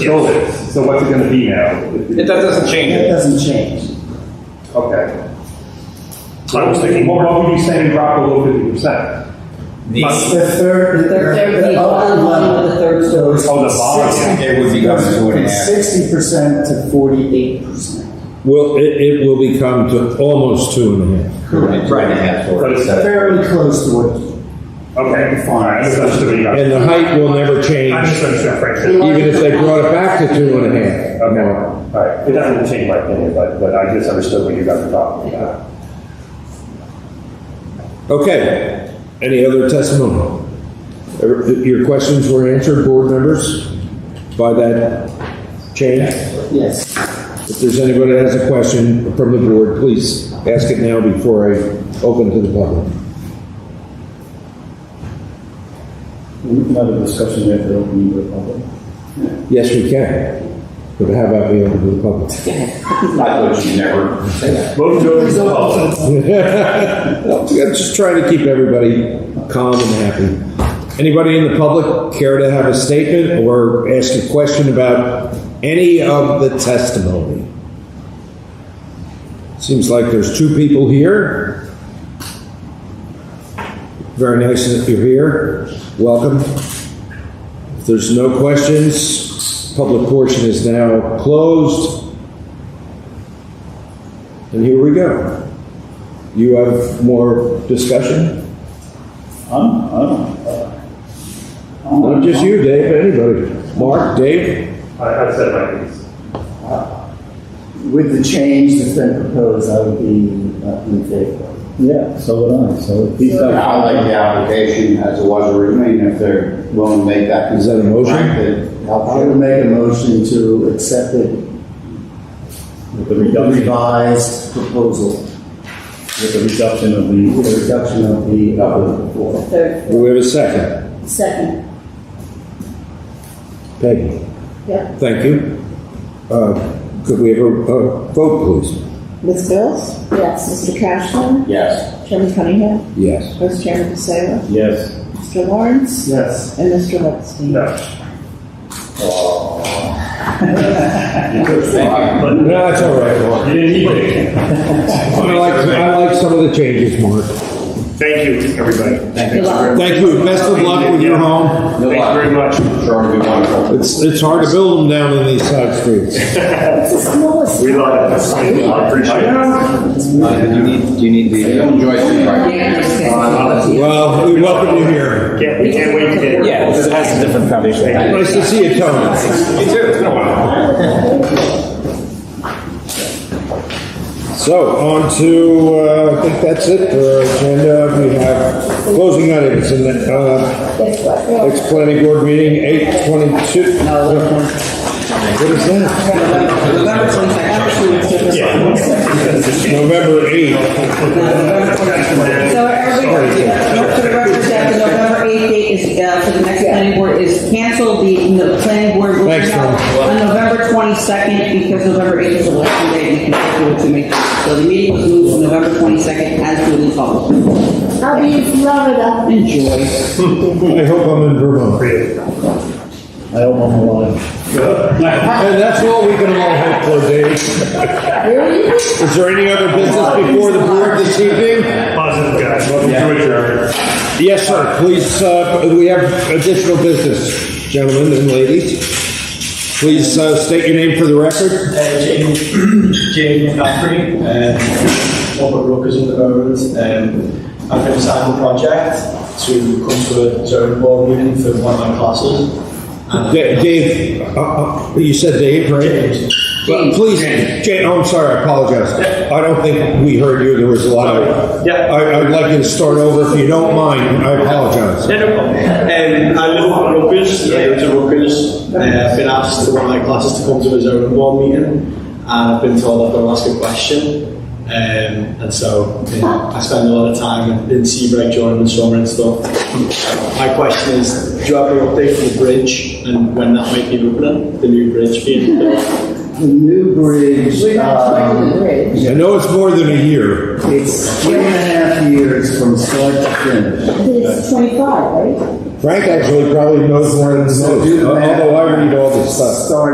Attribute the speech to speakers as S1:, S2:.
S1: COVID, so what's it gonna be now?
S2: It, that doesn't change
S3: That
S2: it.
S3: doesn't change.
S1: Okay.
S4: I was thinking
S1: What,
S4: more.
S1: what would you say drop below fifty percent?
S3: It's
S4: The,
S3: the third, the third, the upper level, the third story.
S1: Oh, the bottom, yeah.
S5: It would become two and a half.
S3: Sixty percent to forty-eight percent.
S6: Well, it, it will become to almost two and a half.
S5: Correct. Two and a half, four.
S1: But it's
S3: Fairly close to what,
S1: Okay, fine, I misunderstood what you got.
S6: And the height will never
S4: I
S6: change,
S4: misunderstood Frank.
S6: even if they brought it back to two and a
S1: Okay,
S6: half.
S1: all right, it doesn't change my opinion, but, but I just understood what you guys were talking about.
S6: Okay, any other testimony? Er, Your questions were answered, board members, by that change?
S3: yes.
S6: If there's anybody that has a question from the board, please ask it now before I open it to the public.
S7: Another discussion after opening the public.
S6: Yes, we can, but how about we open to the public?
S5: I thought you never say that.
S1: Move to open the public.
S6: Well, I'm just trying to keep everybody calm and happy. Anybody in the public care to have a statement or ask a question about any of the testimony? Seems like there's two people here. Very nice that you're here. Welcome. If there's no questions, public portion is now closed. And here we go. You have more discussion?
S7: I'm, I don't. uh, I'm-
S6: Not just you, Dave, but anybody. Mark, Dave?
S1: I, I said my piece.
S3: With the change that's been proposed, I would be uh, in favor.
S7: Yeah, so would I, so. if he's like-
S5: I like the application as it was originally, and if they're willing to make that.
S6: Is that a motion?
S5: Frank, that helps
S3: I
S5: you.
S3: would make a motion to accept it,
S7: With the
S3: the
S7: reduction,
S3: revised proposal,
S7: with the reduction of the.
S3: the reduction of the upper
S7: uh,
S3: floor.
S8: Third,
S6: Do we have a second?
S8: second,
S6: Peggy?
S8: yeah.
S6: Thank you. Uh, Could we have a a vote, please?
S8: Ms. Bills? Yes. Mr. Cashman?
S5: Yes.
S8: Chairman Cunningham?
S6: Yes.
S8: Vice Chairman Passaro?
S7: Yes.
S8: Mr. Lawrence?
S3: Yes.
S8: And Mr. Lipstein?
S6: No, it's all right, Mark.
S4: You didn't need it.
S6: I like, I like some of the changes, Mark.
S4: Thank you, everybody.
S8: Good luck.
S6: Thank you. Best of luck with your home.
S4: Thank you very much.
S5: Sure, it'll be wonderful.
S6: It's, it's hard to build them down in these side streets.
S8: It's the smallest.
S4: We love it. I appreciate it.
S5: Uh, Do you need, do you need the? Don't enjoy it, right?
S6: Well, we welcome you here.
S4: Can't, we can't wait to get.
S9: Yeah, it has a different foundation.
S6: Nice to see you, Tony.
S4: You too, it's been a while.
S6: So, on to, uh, I think that's it for our agenda. We have closing items and then, uh, next planning board meeting, eight twenty-two. What is that? November eighth.
S10: So everybody, for the record, that the November 8th date is, uh, for the next planning board is canceled. The, the planning board will be
S6: Thanks,
S10: held on November 22nd because November 8th is election day and you can vote to make. So the meeting was moved to November 22nd as duly published.
S8: How do you love it up?
S10: Enjoy.
S6: I hope I'm in Vermont.
S7: I hope I'm alive.
S6: And that's all we can all hope for, Dave. Is there any other business before the board this evening?
S4: Positive guys, welcome to it, Jared.
S6: Yes, sir. Please, uh, we have additional business, gentlemen and ladies. Please, uh, state your name for the record.
S11: Uh, James, James McCaffrey, um, Robert Rookers at the moment. Um, I've been assigned a project to come to a zone board meeting for one of my classes. And
S6: Da- Dave, uh, uh, you said Dave, right?
S11: James.
S6: Well, please, Jane, oh, I'm sorry, I apologize. I don't think we heard you, there was a lot of.
S11: Yeah.
S6: I, I'd like you to start over if you don't mind, I apologize.
S11: Yeah, no problem. Um, I live at Rookers, I go to Rookers. Uh, I've been asked to one of my classes to come to a zone board meeting and I've been told I've got to ask a question. Um, and so yeah, I spend a lot of time in Seabright during the summer and stuff. My question is, do you have an update for the bridge and when that might be opening, the new bridge being built?
S3: The new bridge, um,
S6: I know it's more than a year.
S3: it's three and a half years from start to finish.
S8: It's twenty-five, right?
S6: Frank actually probably knows more than most, although Oh, I Uh, read all this stuff.
S3: Start